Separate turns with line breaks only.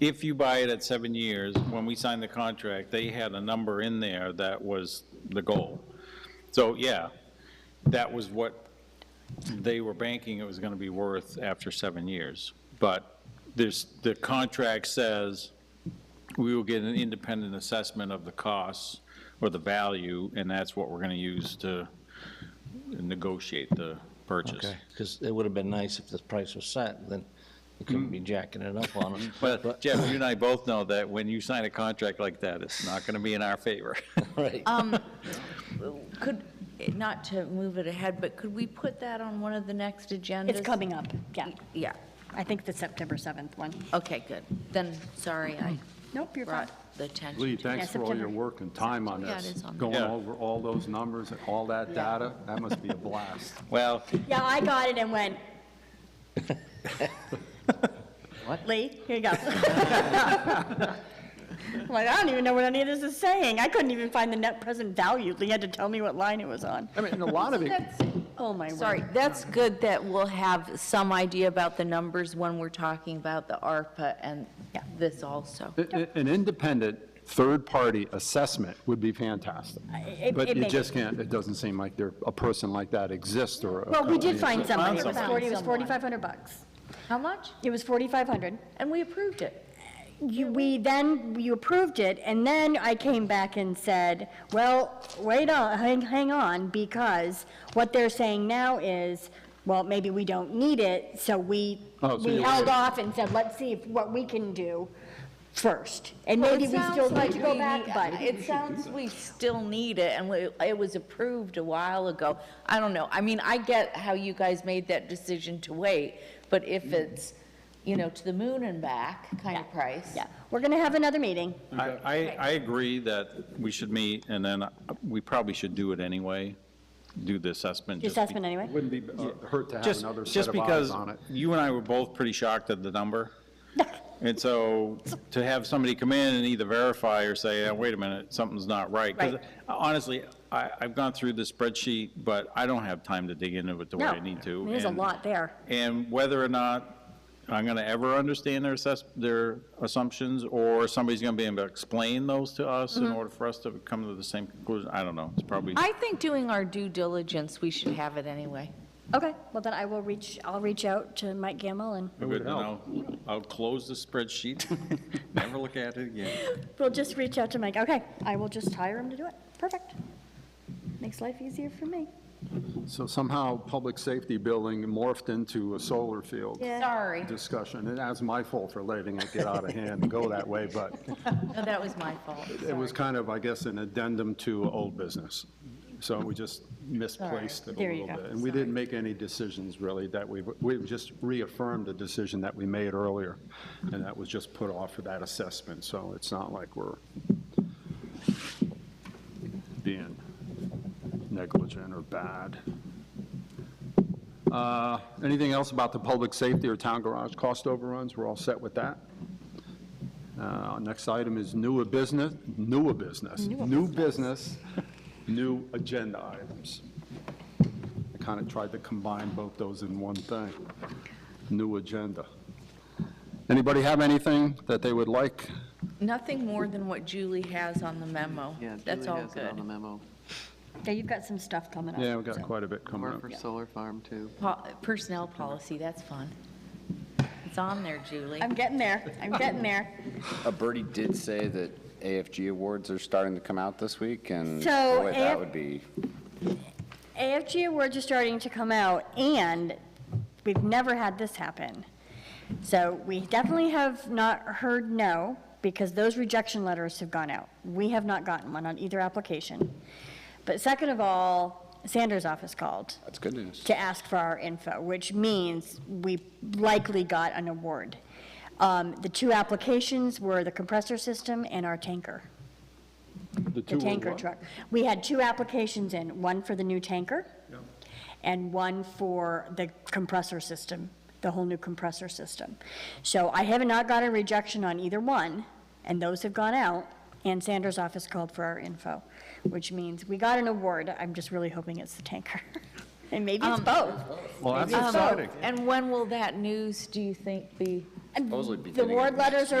if you buy it at seven years, when we signed the contract, they had a number in there that was the goal. So, yeah, that was what they were banking it was going to be worth after seven years. But there's, the contract says we will get an independent assessment of the costs or the value, and that's what we're going to use to negotiate the purchase.
Okay, because it would have been nice if the price was set, then you couldn't be jacking it up on us.
But Jeff, you and I both know that when you sign a contract like that, it's not going to be in our favor.
Right.
Could, not to move it ahead, but could we put that on one of the next agendas?
It's coming up, yeah.
Yeah,
I think the September 7th one.
okay, good. Then, sorry, I
Nope, you're fine.
brought the attention.
Lee,
to-
thanks for all your
September.
work and time on
Yeah, it
this,
is on there.
going
Yeah.
over all those numbers, and all that data. That must be a blast.
Well,
Yeah, I got it and went.
What?
Lee, here you go. I'm Like, I don't even know what any of this is saying. I couldn't even find the net present value. Lee had to tell me what line it was on.
I mean, and a lot of it,
Oh, my word.
Sorry, that's good that we'll have some idea about the numbers when we're talking about the ARPA and
Yeah.
this also.
a- a- an independent, third-party assessment would be fantastic.
it-
But
it
you
may-
just can't, it doesn't seem like there, a person like that exists or. a
Well, we did
company
find
exists.
somebody. It was
someone.
40, it was
Someone.
4,500 bucks.
How much?
It was 4,500.
And we approved it.
You, we then, you approved it, and then I came back and said, well, wait on, hang, hang on, because what they're saying now is, well, maybe we don't need it, so we,
Oh, so
we
you
held
waited.
off and said, let's see if- what we can do first. And
Well,
maybe
it
we
sounds
still need uh,
like
to go
we
back,
need-
but
It sounds we still need it, and we- it was approved a while ago. I don't know, I mean, I get how you guys made that decision to wait, but if it's, you know, to the moon and back kind of price.
yeah, we're gonna have another meeting.
I, I- I agree that we should meet, and then we probably should do it anyway, do the assessment.
The
just be-
assessment anyway.
It Wouldn't be uh, hurt to have
Just,
another set
just
of eyes
because
on it.
you and I were both pretty shocked at the number. And so to have somebody come in and either verify or say, "Uh, wait a minute, something's not right. 'Cause
Right.
Honestly, I, I've gone through the spreadsheet, but I don't have time to dig into it the way
No,
I need to.
there's a
and-
lot there.
And whether or not I'm going to ever understand their assess, their assumptions, or somebody's going to be able to explain those to us in order for us to come to the same conclusion, I don't know, it's probably.
I think doing our due diligence, we should have it anyway.
Okay, well then I will reach, I'll reach out to Mike Gamble and
Good, then I'll, I'll close the spreadsheet, never look at it again.
We'll just reach out to Mike. Okay, I will just hire him to do it. Perfect. Makes life easier for me.
So somehow, public safety building morphed into a solar field
Yeah.
Sorry,
discussion. And that's my fault for letting it get out of hand and go that way, but
No, that was my fault.
it was kind of, I guess, an addendum to old business. So we just misplaced it a
There you
little
go.
bit. And we didn't make any decisions, really, that we, we just reaffirmed a decision that we made earlier, and that was just put off for that assessment. So it's not like we're being negligent or bad. Uh, Anything else about the public safety or town garage cost overruns? We're all set with that? Uh, Next item is newer business, newer business, new business, new agenda items. I kind of tried to combine both those in one thing, new agenda. Anybody have anything that they would like?
Nothing more than what Julie has on the memo.
Yeah,
That's
Julie
all
has it on the
good.
memo.
Yeah, you've got some stuff coming up.
Yeah, we've got
so.
quite a bit coming
Or
up.
for solar farm, too.
Po- Personnel policy, that's fun. It's on there, Julie.
I'm getting there. I'm getting there.
Uh, Bertie did say that AFG awards are starting to come out this week, and
So
boy,
AF
that would be,
AFG awards are starting to come out, and we've never had this happen. So we definitely have not heard no, because those rejection letters have gone out. We have not gotten one on either application. But second of all, Sanders' office called.
that's good news.
to ask for our info, which means we likely got an award. Um, The two applications were the compressor system and our tanker, the
two were
tanker
what?
truck. We had two applications in, one for the new tanker and one for the compressor system, the whole new compressor system. So I have not gotten rejection on either one, and those have gone out, and Sanders' office called for our info, which means we got an award. I'm just really hoping it's the tanker. And maybe it's both.
Well, that's
Um,
exciting.
And when will that news, do you think, be?
And
Supposedly
The
beginning of
ward
next
letters are